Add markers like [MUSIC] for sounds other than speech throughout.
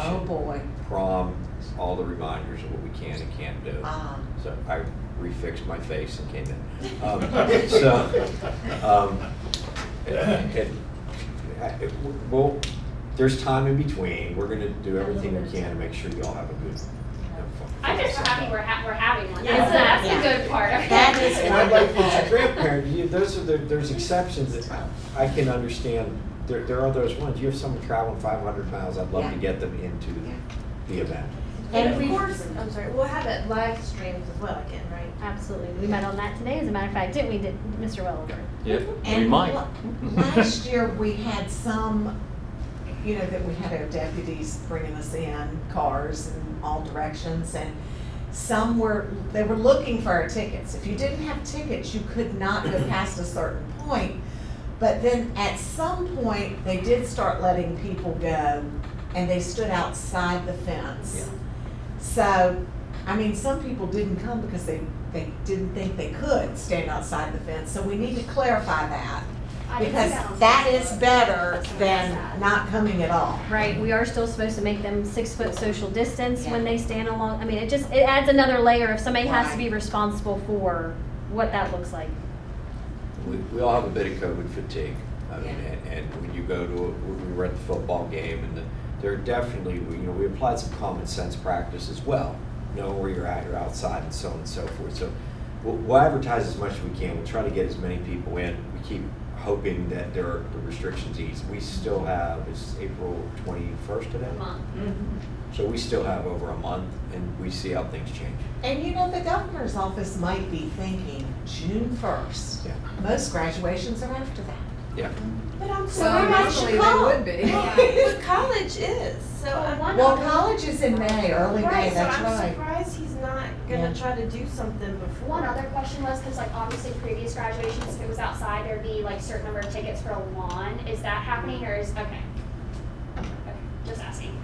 Oh, boy. prom, all the reminders of what we can and can't do. Um, Ah. So I refixed my face and came in. [LAUGHS] Um, So, um, it- it- I- it- well, there's time in between. We're gonna do everything we can to make sure you all have a good. I'm just happy we're ha- we're having one. Yeah. That's, that's Yeah. the good part. That is And I'd like each grandparent, you, those are, the- there's exceptions that I can understand. There, there are those ones. You have someone traveling five hundred miles, I'd love to Yeah. get them into Yeah. the event. And we- of course, I'm sorry, we'll have it live streamed as well again, right? Absolutely. We met on that today, as a matter of fact, didn't we, did- Mr. Welliver? Yeah, we And might. la- Last year, we had some, you know, that we had our deputies bringing us in, cars in all directions, and some were, they were looking for our tickets. If you didn't have tickets, you could not go past a certain point. But then at some point, they did start letting people go, and they stood outside the fence. So, I mean, some people didn't come because they, they didn't think they could stand outside the fence, so we need to clarify that. I didn't Because see on that Facebook. is better That's what I than said. not coming at all. Right, we are still supposed to make them six foot social distance when Yeah. they stand along, I mean, it just, it adds another layer of somebody has to Right. be responsible for what that looks like. We, we all have a bit of COVID fatigue. I mean, Yeah. and, and when you go to, a- when we were at the football game and the, there are definitely, we- you know, we applied some common sense practice as well. Know where you're at, you're outside and so on and so forth. So we'll, we'll advertise as much as we can. We'll try to get as many people in. We keep hoping that there are the restrictions ease. We still have, it's April twenty-first today? So we still have over a month and we see how things change. And you know, the governor's office might be thinking June first. Yeah. Most graduations are after that. Yeah. But I'm So naturally, they [LAUGHS] would be. But college is, so I'm. Well, college is in May, early May, Right, so that's I'm right. surprised he's not Yeah. gonna try to do something before. One other question was, because like obviously previous graduations, if it was outside, there'd be like certain number of tickets for a lawn. Is that happening or is, okay. Okay, Just [LAUGHS] asking.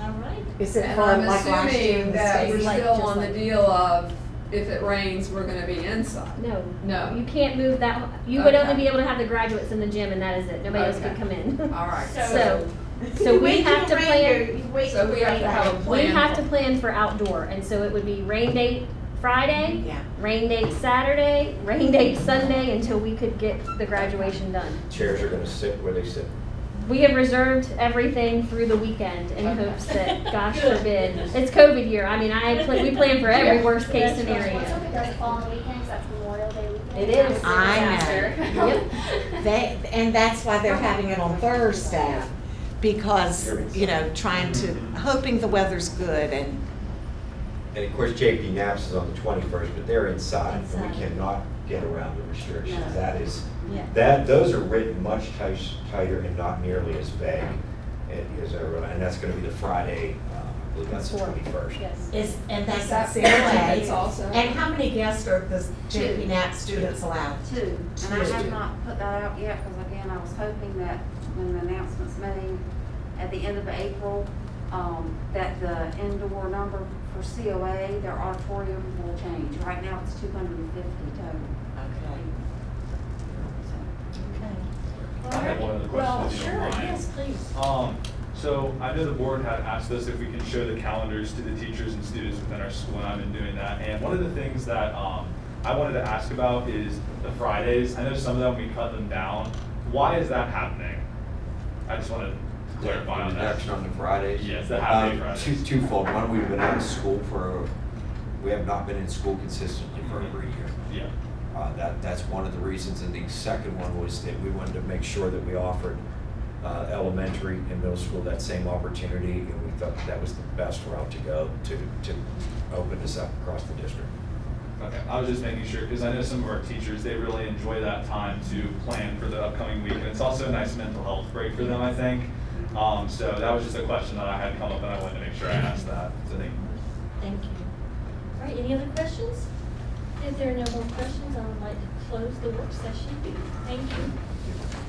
All right. Is it And for I'm like last year in assuming the that we're state? Like, still just on the like- deal of, if it rains, we're gonna be inside. No. No, You can't move that, you would only Oh. Okay. be able to have the graduates in the gym and that is it. Nobody else could Okay. come in. [LAUGHS] alright. So, [LAUGHS] You so we wait till have to the rain plan, go- you wait So till we the have rain to goes. have a we plan. have to for- plan for outdoor. And so it would be rain date Friday, Yeah. rain date Saturday, rain date Sunday until we could get the graduation done. Chairs are gonna sit where they sit. We have reserved everything through the weekend in Okay. hopes that, gosh forbid, it's COVID year. I mean, I pl- we plan for every worst case scenario. What's up if it does fall on the weekends, that's Memorial Day weekend? It is. I know. know. [LAUGHS] They, and that's why they're having it on Thursday, because, you know, trying to, hoping the weather's good and, And of course, JP Naps is on the twenty-first, but they're inside, and we Inside. cannot get around the restrictions. No. That is, Yeah. that, those are written much ti- tighter and not nearly as vague eh, as everyone, and that's gonna be the Friday, um, I believe that's the Before, twenty-first. Yes. is, and that's Is that at fair? That's Safeway. also. And how many guests are the JP Nat students allowed? Two, and I Two. have not put that out yet, because again, I was hoping that when the announcement's made at the end of April, um, that the indoor number for COA, their auditorium will change. Right now, it's two hundred and fifty total. Okay. I have one other question, if you don't mind. please. Um, so I know the board had asked us if we can show the calendars to the teachers and students within our school, and I've been doing that. And one of the things that, um, I wanted to ask about is the Fridays. I know some of them, we cut them down. Why is that happening? I just wanted to clarify on that. Reduction on the Fridays. Yes, the half-day Um, Fridays. Two, twofold, one, we've been out of school for, we have not been in school consistently for over a year. Yeah. Uh, That, that's one of the reasons, and the second one was that we wanted to make sure that we offered uh, elementary and middle school that same opportunity, and we thought that was the best route to go to, to open this up across the district. Okay, I was just making sure, because I know some of our teachers, they really enjoy that time to plan for the upcoming week, and it's also a nice mental health break for them, I think. Um, so that was just a question that I had come up, and I wanted to make sure I asked that, so thank you. Thank you. All right, any other questions? If there are no more questions, I would like to close the work session. Thank you.